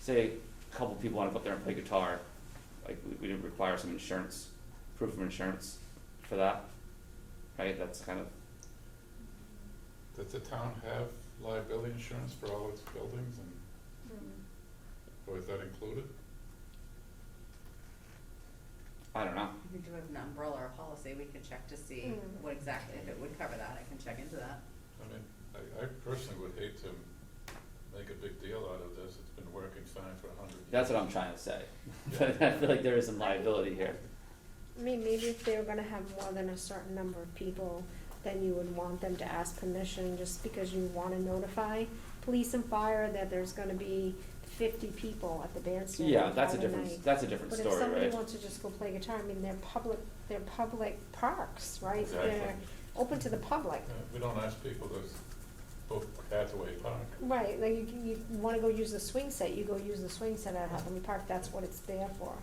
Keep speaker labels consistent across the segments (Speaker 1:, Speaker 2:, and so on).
Speaker 1: say a couple people wanna go up there and play guitar, like, we, we would require some insurance, proof of insurance for that, right, that's kind of,
Speaker 2: Does the town have liability insurance for all its buildings and, or is that included?
Speaker 1: I don't know,
Speaker 3: We do have an umbrella or policy, we can check to see
Speaker 4: Mm.
Speaker 3: what exactly, if it would cover that, I can check into that.
Speaker 2: I mean, I, I personally would hate to make a big deal out of this, it's been working fine for a hundred years.
Speaker 1: that's what I'm trying to say, but I feel like there is some liability here.
Speaker 4: I mean, maybe if they were gonna have more than a certain number of people, then you would want them to ask permission, just because you wanna notify police and fire that there's gonna be fifty people at the bandstand
Speaker 1: Yeah,
Speaker 4: on
Speaker 1: that's a
Speaker 4: Friday
Speaker 1: different,
Speaker 4: night.
Speaker 1: that's a different
Speaker 4: But
Speaker 1: story,
Speaker 4: if
Speaker 1: right?
Speaker 4: somebody wants to just go play guitar, I mean, they're public, they're public parks, right?
Speaker 2: Exactly.
Speaker 4: They're open to the public.
Speaker 2: Uh, We don't ask people to book Hathaway Park.
Speaker 4: Right, like you, can- you wanna go use the swing set, you go use the swing set at Hudley Park, that's what it's there for.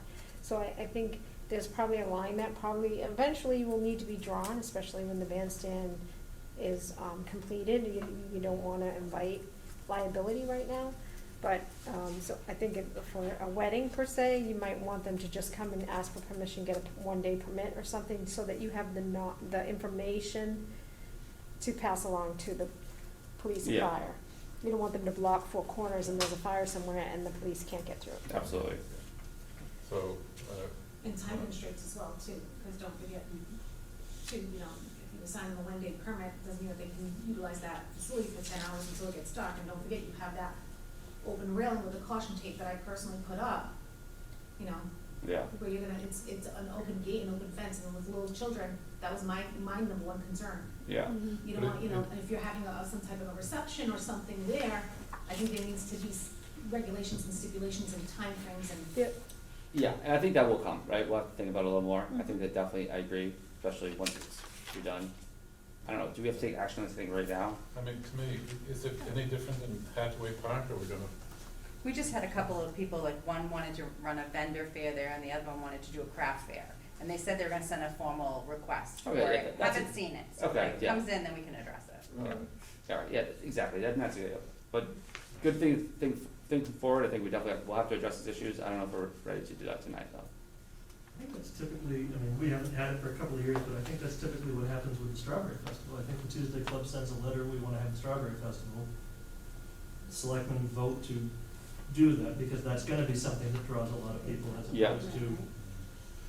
Speaker 4: So I, I think there's probably a line that probably eventually will need to be drawn, especially when the bandstand is, um, completed. You, you don't wanna invite liability right now, but, um, so I think if, for a wedding per se, you might want them to just come and ask for permission, get a one-day permit or something, so that you have the not, the information to pass along to the police and
Speaker 1: Yeah.
Speaker 4: fire. You don't want them to block four corners and there's a fire somewhere and the police can't get through.
Speaker 1: Absolutely.
Speaker 2: So, uh,
Speaker 5: And time constraints as well too, because don't forget, you- to, you know, if you assign them a one-day permit, doesn't mean that they can utilize that facility for ten hours until it gets dark, and don't forget, you have that open railing with the caution tape that I personally put up, you know,
Speaker 1: Yeah,
Speaker 5: where you're gonna, it's, it's an open gate and open fence, and with little children, that was my, my number one concern.
Speaker 1: yeah,
Speaker 5: You
Speaker 2: But
Speaker 5: don't want,
Speaker 2: it-
Speaker 5: you know,
Speaker 2: it-
Speaker 5: and if you're having a, some type of a reception or something there, I think there needs to be s- regulations and stipulations and timeframes and
Speaker 4: Yeah,
Speaker 1: yeah, and I think that will come, right, we'll have to think about it a little more, I think
Speaker 5: Mhm.
Speaker 1: that definitely, I agree, especially once it's redone. I don't know, do we have to take action on this thing right now?
Speaker 2: I mean, to me, is it any different than Hathaway Park, or we're gonna
Speaker 3: We just had a couple of people, like one wanted to run a vendor fair there and the other one wanted to do a craft fair. And they said they were gonna send a formal request for
Speaker 1: Okay, Oh, yeah,
Speaker 3: it,
Speaker 1: that's a-
Speaker 3: haven't seen it, so
Speaker 1: okay,
Speaker 3: when it
Speaker 1: yeah.
Speaker 3: comes in, then we can address it.
Speaker 1: Alright, alright, Um, yeah, exactly, that, that's it, but good thing, think, thinking forward, I think we definitely, have- we'll have to address these issues, I don't know if we're ready to do that tonight, though.
Speaker 6: I think that's typically, I mean, we haven't had it for a couple of years, but I think that's typically what happens with the Strawberry Festival. I think the Tuesday Club sends a letter, we wanna have the Strawberry Festival. Selectmen vote to do that, because that's gonna be something that draws a lot of people as
Speaker 1: Yeah.
Speaker 6: opposed to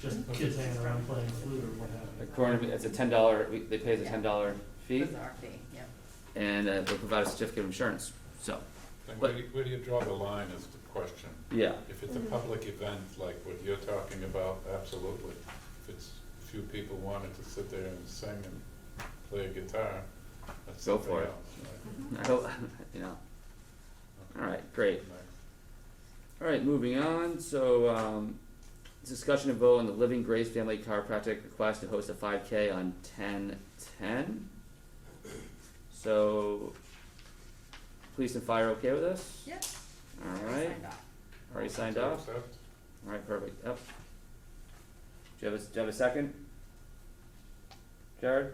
Speaker 6: just kids hanging around playing flute or what have you.
Speaker 1: According to, me, it's a ten dollar, they pay us a
Speaker 3: Yeah.
Speaker 1: ten dollar fee,
Speaker 3: Bizarre fee, yep.
Speaker 1: and, uh, they provide a certificate of insurance, so,
Speaker 2: Then
Speaker 1: But-
Speaker 2: where do, you- where do you draw the line is the question.
Speaker 1: yeah,
Speaker 2: If it's a
Speaker 4: Mhm.
Speaker 2: public event like what you're talking about, absolutely. If it's few people wanted to sit there and sing and play a guitar, that's
Speaker 1: Go
Speaker 2: something
Speaker 1: for it.
Speaker 2: else, right?
Speaker 1: I hope, you know, alright, great. Alright, moving on, so, um, discussion and vote on the Living Grace Family Chiropractic request to host a five K on ten ten. So, police and fire okay with this?
Speaker 3: Yep.
Speaker 1: Alright,
Speaker 3: Signed off.
Speaker 1: already signed
Speaker 2: To
Speaker 1: off,
Speaker 2: accept?
Speaker 1: alright, perfect, yep. Do you have a, do you have a second? Jared?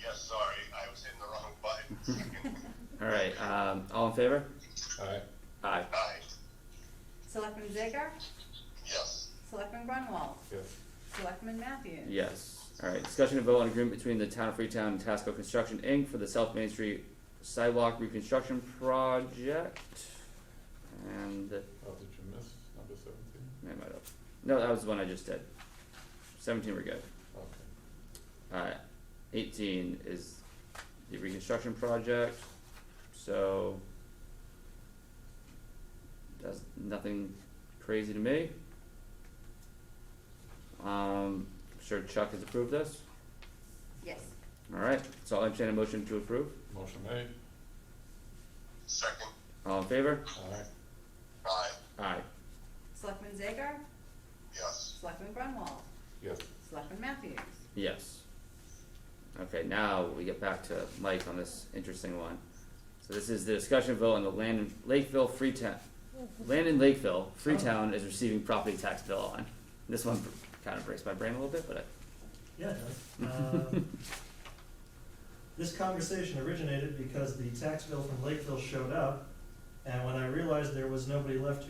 Speaker 7: Yes, sorry, I was hitting the wrong button.
Speaker 1: Alright, um, all in favor?
Speaker 2: Aye,
Speaker 1: Aye.
Speaker 7: Aye,
Speaker 3: Selectman Zager,
Speaker 7: yes,
Speaker 3: Selectman Grunwald,
Speaker 2: yes,
Speaker 3: Selectman Matthews.
Speaker 1: Yes. Alright, discussion and vote on agreement between the town of Freetown and Tasco Construction Inc. for the South Main Street sidewalk reconstruction project. And,
Speaker 2: oh, did you miss number seventeen?
Speaker 1: I might have, no, that was the one I just did. Seventeen, we're good.
Speaker 2: Okay,
Speaker 1: Uh, eighteen is the reconstruction project, so. That's nothing crazy to me. Um, I'm sure Chuck has approved this.
Speaker 3: Yes.
Speaker 1: Alright, so I'll entertain a motion to approve.
Speaker 2: motion made,
Speaker 7: second,
Speaker 1: All in favor?
Speaker 2: aye,
Speaker 7: aye,
Speaker 1: Aye.
Speaker 3: Selectman Zager,
Speaker 7: yes,
Speaker 3: Selectman Grunwald,
Speaker 2: yes,
Speaker 3: Selectman Matthews.
Speaker 1: Yes. Okay, now we get back to Mike on this interesting one. So this is the discussion vote on the land in Lakeville Freetown, land in Lakeville, Freetown is receiving property tax bill on. This one kind of breaks my brain a little bit, but I,
Speaker 6: Yeah, it does. Um, This conversation originated because the tax bill from Lakeville showed up, and when I realized there was nobody left